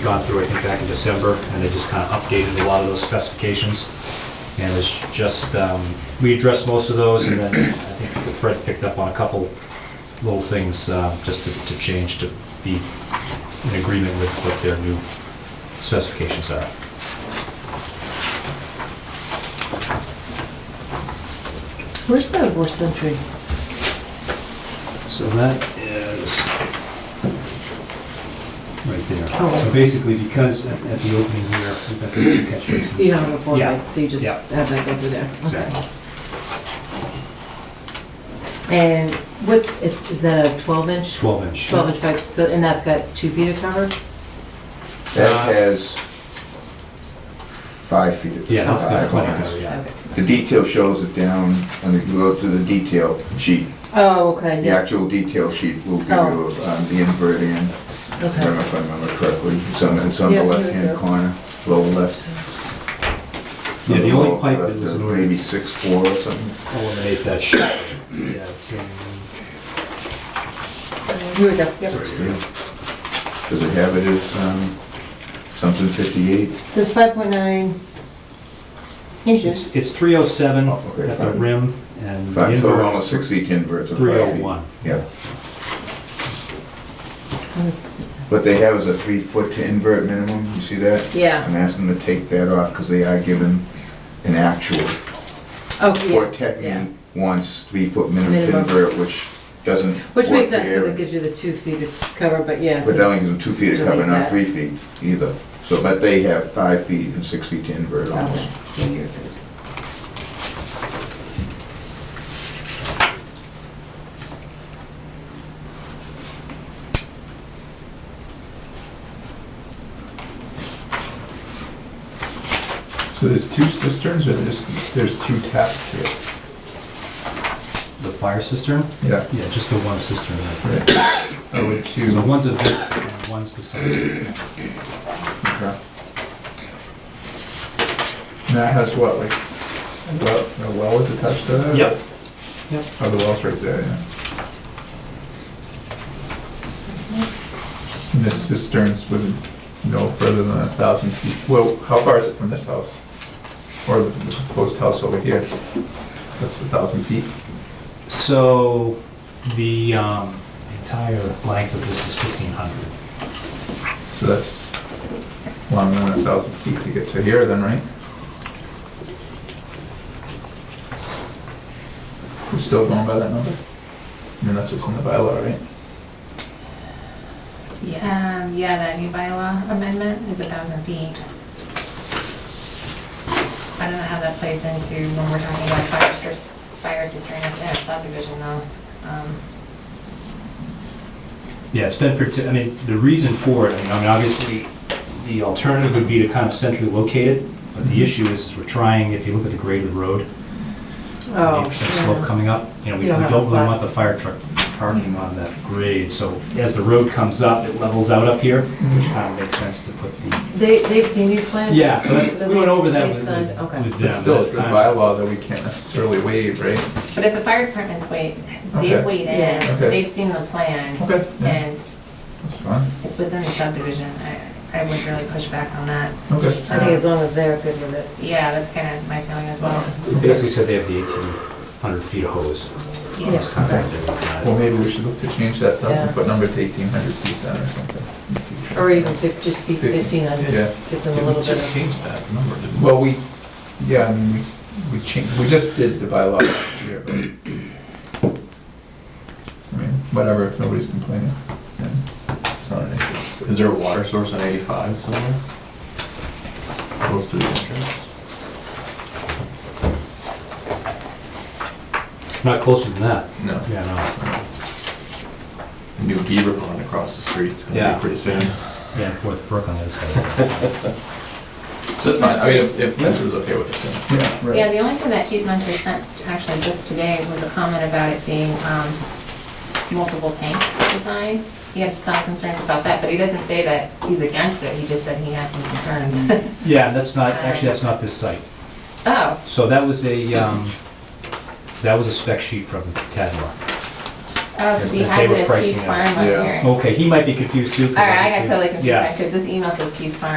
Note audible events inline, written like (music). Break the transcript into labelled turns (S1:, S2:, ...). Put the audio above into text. S1: gone through, I think, back in December, and they just kind of updated a lot of those specifications. And it's just, um, we addressed most of those, and then I think Fred picked up on a couple little things uh, just to- to change to be in agreement with what their new specifications are.
S2: Where's the War Century?
S1: So that is right there.
S2: Oh.
S1: So basically, because at at the opening here, we've got the two catch basins.
S2: You don't have a four
S1: Yeah.
S2: light, so you just
S1: Yeah.
S2: have that go through there.
S1: Exactly.
S2: Okay. And what's, is is that a 12 inch?
S1: 12 inch.
S2: 12 inch pipe, so, and that's got two feet of cover?
S1: Uh,
S3: That has five feet of.
S1: Yeah, that's got
S3: five
S1: plenty of
S3: lines.
S1: cover, Oh, yeah.
S2: Okay.
S3: The detail shows it down, and if you go to the detail sheet,
S2: Oh, okay,
S3: the
S2: yeah,
S3: actual detail sheet will give you
S2: Oh.
S3: um, the invert in, I don't know
S2: okay.
S3: if I remember correctly, it's on, it's on
S2: Yeah, here
S3: the
S2: we
S3: left-hand
S2: go.
S3: corner, lower left.
S1: Yeah, the only
S3: lower
S1: pipe that
S3: left,
S1: was
S3: uh,
S1: in order
S3: Maybe six, four or something.
S1: eliminate that shit. Yeah, it's in,
S2: Here we go, yep.
S3: Does it have it as, um, something fifty-eight?
S2: Says 5.9
S1: it's,
S2: inches.
S1: it's three oh seven
S3: okay,
S1: at the
S3: fine.
S1: rim and the
S3: Five, so
S1: invert
S3: almost
S1: is
S3: six feet invert.
S1: three oh one.
S3: Yeah,
S2: Let's-
S3: what they have is a three-foot to invert minimum, you see that?
S2: Yeah,
S3: I'm asking them to take that off because they are given an actual.
S2: okay,
S3: Or
S2: Oh, yeah, yeah.
S3: technically wants three-foot minimum
S2: Minimum.
S3: invert, which doesn't.
S2: Which
S3: work
S2: makes
S3: for
S2: sense, because
S3: area.
S2: it gives you the two feet of cover, but yeah,
S3: But that
S2: so-
S3: only gives them two feet
S2: to
S3: of cover,
S2: leave
S3: not
S2: that.
S3: three feet either. So, but they have five feet and six feet to invert almost.
S2: okay, so you're good.
S4: So there's two cisterns or there's, there's two taps here?
S1: The fire cistern?
S4: Yeah.
S1: Yeah, just the one cistern. right there.
S4: Oh, with
S1: So
S4: two.
S1: one's a bit, and one's the side.
S4: Okay. And that has what, like, a well, a well is attached to that?
S1: Yep.
S4: Oh, the well's right there, yeah. And this cistern's with no further than a thousand feet. Well, how far is it from this house? Or the proposed house over here? That's a thousand feet?
S1: So the, um, entire length of this is fifteen hundred.
S4: So that's longer than a thousand feet to get to here then, right? We're still going by that number? I mean, that's what's in the bylaw, right?
S5: Yeah, um, yeah, that new bylaw amendment is a thousand feet. I don't know how that plays into when we're talking about fire sis- fire cistern up there subdivision though. Um,
S1: Yeah, it's been, parti- I mean, the reason for it, I mean, I mean, obviously, the alternative would be to kind of centrally locate it, but
S3: Mm-hmm.
S1: the issue is, is we're trying, if you look at the grade of the road,
S2: Oh,
S1: eight percent slope
S2: yeah.
S1: coming up, you know, we we
S2: You don't have
S1: don't really want the
S2: flats.
S1: fire truck parking on that grade, so as the road comes up, it levels out up here, which kind of makes sense to put the,
S2: They, they've seen these plans?
S1: yeah, so that's,
S2: So
S1: we went
S2: they-
S1: over that
S2: they've
S1: with with
S2: signed-
S1: them.
S2: Okay.
S4: But still,
S1: that's
S4: it's the
S1: kind of-
S4: bylaw that we can't necessarily waive, right?
S5: But if the fire department's wait,
S4: Okay.
S5: they've weighed
S2: Yeah.
S5: in,
S4: Okay.
S5: they've seen the plan,
S4: Okay, yeah,
S5: and
S4: that's fine.
S5: it's within the subdivision, I, I would really push back on that.
S4: Okay.
S2: I think as long as they're good with it.
S5: Yeah, that's kind of my feeling as well.
S1: They Basically said they have the eighteen hundred feet of hose.
S5: Yeah.
S1: It's kind of- they're not-
S4: Well, maybe we should look to change that
S2: Yeah.
S4: thousand foot number to eighteen hundred feet then or something. in the future.
S2: Or even fif- just be
S4: Fifty.
S2: fifteen hundred,
S4: Yeah.
S2: gives them a little bit
S6: Just
S2: of,
S6: change that number, didn't we?
S4: Well, we, yeah, I mean, we, s- we changed, we just did the bylaw last year, but. I mean, whatever, if nobody's complaining, then it's not an issue.
S6: Is there a water source on 85 somewhere? Close to the entrance?
S1: Not closer than that.
S6: No.
S1: Yeah, no.
S6: New beaver pond across the street, it's gonna
S1: Yeah.
S6: be pretty soon.
S1: Yeah, Fourth Brook on the other (laughs) side.
S6: So it's fine, I mean, if- if Men's was okay with it, then.
S4: Yeah, right.
S5: Yeah, the only thing that Chief Munter sent actually just today was a comment about it being um, multiple tank design. He had some concerns about that, but he doesn't say that he's against it, he just said he had some
S1: Mm-hmm.
S5: concerns.
S1: Yeah, that's not, actually, that's not this site.
S5: (laughs) Oh,
S1: So that was a, um, that was a spec sheet from Tadmore.
S5: Oh,
S1: As-
S5: because he
S1: as they
S5: has
S1: were
S5: it as
S1: pricing
S5: Keys
S1: it.
S5: Farm up
S6: Yeah.
S5: here. All
S1: Okay, he might be confused too. 'cause
S5: right, I got
S1: obviously-
S5: totally confused
S1: Oh, Yeah.
S5: because this email says Keys Farm.